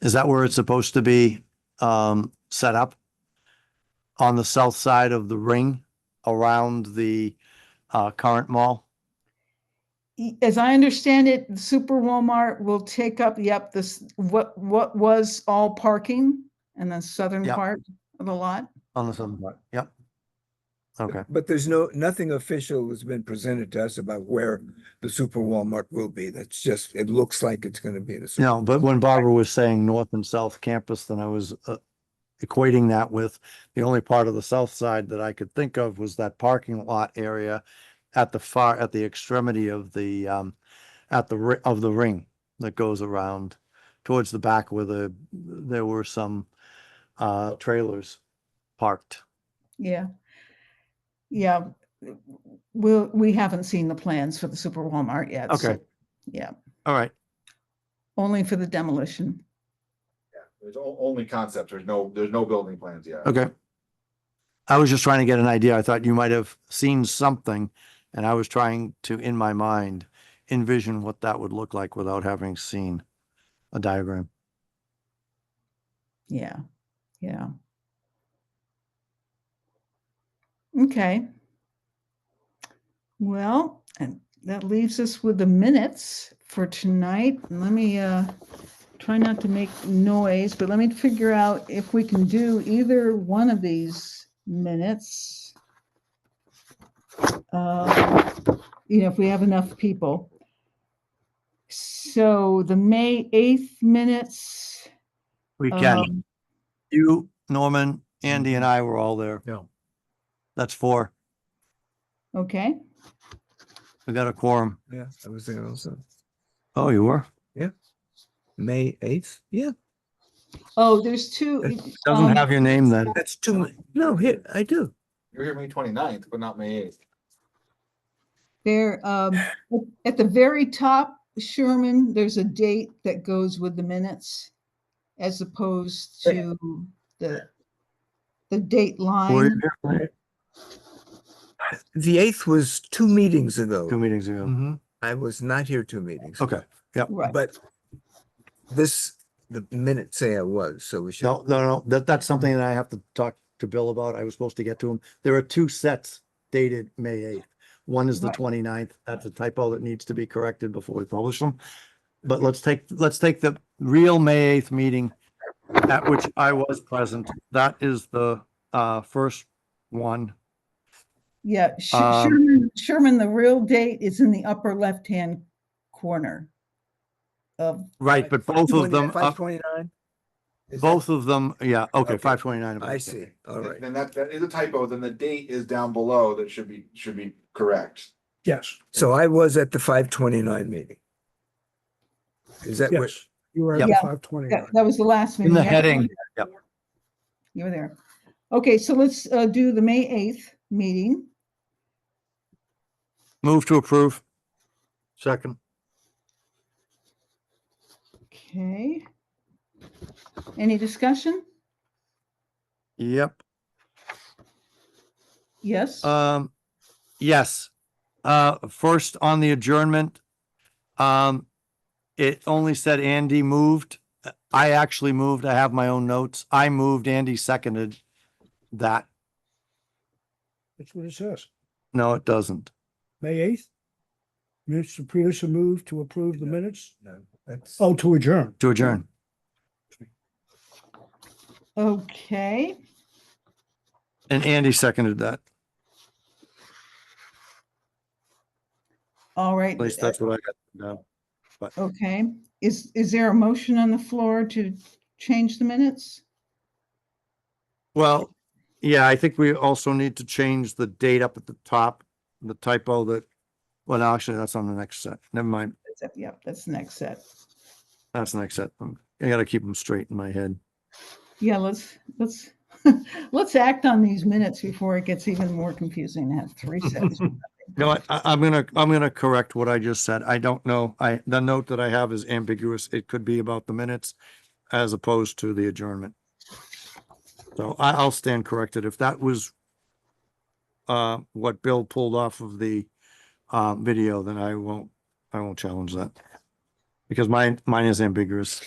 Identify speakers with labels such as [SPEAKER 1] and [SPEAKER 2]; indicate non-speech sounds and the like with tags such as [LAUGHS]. [SPEAKER 1] Is that where it's supposed to be, um, set up? On the south side of the ring around the, uh, current mall?
[SPEAKER 2] y- E, as I understand it, Super Walmart will take up, yep, this, what, what was all parking in the southern
[SPEAKER 1] Yep.
[SPEAKER 2] part of the lot?
[SPEAKER 1] On the southern part, yep. Okay,
[SPEAKER 3] But there's no, nothing official has been presented to us about where the super Walmart will be. That's just, it looks like it's gonna be the. super-
[SPEAKER 1] no, but when Barbara was saying north and south campus, then I was, uh, equating that with the only part of the south side that I could think of was that parking lot area at the far, at the extremity of the, um, at the, ri- of the ring that goes around towards the back where the, there were some, uh, trailers parked.
[SPEAKER 2] Yeah. Yeah, we'll, we haven't seen the plans for the Super Walmart yet.
[SPEAKER 1] Okay.
[SPEAKER 2] so- Yeah,
[SPEAKER 1] All right,
[SPEAKER 2] only for the demolition.
[SPEAKER 4] There's o- only concepts. There's no, there's no building plans yet.
[SPEAKER 1] okay. I was just trying to get an idea. I thought you might have seen something and I was trying to, in my mind, envision what that would look like without having seen a diagram.
[SPEAKER 2] Yeah, yeah. Okay. Well, and that leaves us with the minutes for tonight. And Let me uh try not to make noise, but let me figure out if we can do either one of these minutes. Uh, You know, if we have enough people. So the May 8th minutes.
[SPEAKER 1] We can.
[SPEAKER 2] um,
[SPEAKER 1] You, Norman, Andy and I were all there.
[SPEAKER 5] Yeah.
[SPEAKER 1] That's four.
[SPEAKER 2] Okay,
[SPEAKER 1] We got a quorum.
[SPEAKER 3] Yeah, I was there also.
[SPEAKER 1] Oh, you were?
[SPEAKER 3] May eighth? Yeah.
[SPEAKER 2] oh, there's two. it- um,
[SPEAKER 1] Doesn't have your name then.
[SPEAKER 3] That's too, much. no, here, I do.
[SPEAKER 4] You're here May 29th, but not May eighth.
[SPEAKER 2] There, um, at the very top, Sherman, there's a date that goes with the minutes as
[SPEAKER 1] Uh,
[SPEAKER 2] opposed to the, the date
[SPEAKER 1] Were you
[SPEAKER 2] line.
[SPEAKER 1] here?
[SPEAKER 3] The eighth was two meetings
[SPEAKER 1] Two
[SPEAKER 3] ago. Mm-hmm.
[SPEAKER 1] meetings ago.
[SPEAKER 5] Mhm.
[SPEAKER 3] I was not here two meetings.
[SPEAKER 1] Okay.
[SPEAKER 2] Right,
[SPEAKER 3] But this, the minutes say I was, so we should.
[SPEAKER 1] No, no, no, that, that's something that I have to talk to Bill about. I was supposed to get to him. There are two sets dated May eighth. One is the
[SPEAKER 2] Right.
[SPEAKER 1] 29th. That's a typo that needs to be corrected before we publish them. But let's take, let's take the real May eighth meeting at which I was present. That is the, uh, first one.
[SPEAKER 2] yeah, Sh-
[SPEAKER 1] um,
[SPEAKER 2] Sherman, Sherman, the real date is in the upper left-hand corner of,
[SPEAKER 1] Right, but both of them,
[SPEAKER 3] Five
[SPEAKER 1] up-
[SPEAKER 3] twenty-nine?
[SPEAKER 1] both of them, yeah, okay,
[SPEAKER 3] Okay.
[SPEAKER 1] five twenty-nine.
[SPEAKER 3] I see, all right.
[SPEAKER 4] Then that, that is a typo. Then the date is down below that should be, should be correct.
[SPEAKER 6] Yes,
[SPEAKER 3] So I was at the five twenty-nine meeting. Is that what?
[SPEAKER 6] yes, you were at
[SPEAKER 2] Yeah.
[SPEAKER 6] five twenty.
[SPEAKER 2] that that was the last
[SPEAKER 1] In
[SPEAKER 2] meeting.
[SPEAKER 1] the
[SPEAKER 2] I don't
[SPEAKER 1] heading,
[SPEAKER 2] You were there. Okay, so let's, uh, do the May 8th meeting.
[SPEAKER 1] move to approve. Second.
[SPEAKER 2] Okay. Any discussion?
[SPEAKER 1] Yep.
[SPEAKER 2] Yes?
[SPEAKER 1] Um, yes, uh, first on the adjournment. Um, it only said Andy moved. I actually moved. I have my own notes. I moved, Andy seconded that.
[SPEAKER 6] That's what it says.
[SPEAKER 1] No, it doesn't.
[SPEAKER 6] May eighth. Mr. Peterson moved to approve the minutes.
[SPEAKER 3] No, that's.
[SPEAKER 6] Oh, to adjourn.
[SPEAKER 1] To adjourn.
[SPEAKER 2] Okay,
[SPEAKER 1] And Andy seconded that.
[SPEAKER 2] all right.
[SPEAKER 1] At least
[SPEAKER 2] uh,
[SPEAKER 1] that's what I got. down.
[SPEAKER 2] Okay, is, is there a motion on the floor to change the minutes?
[SPEAKER 1] Well, yeah, I think we also need to change the date up at the top, the typo that, well, no, actually, that's on the next set. Never mind.
[SPEAKER 2] That's up- Yep, that's the next set.
[SPEAKER 1] That's the next set. I'm- I gotta keep them straight in my head.
[SPEAKER 2] Yeah, let's, let's, [LAUGHS] let's act on these minutes before it gets even more confusing to have three sets.
[SPEAKER 1] No, I, I- I'm gonna, I'm gonna correct what I just said. I don't know. I, the note that I have is ambiguous. It could be about the minutes as opposed to the adjournment. So I, I'll stand corrected. If that was uh, what Bill pulled off of the uh, video, then I won't, I won't challenge that. Because mine, mine is ambiguous.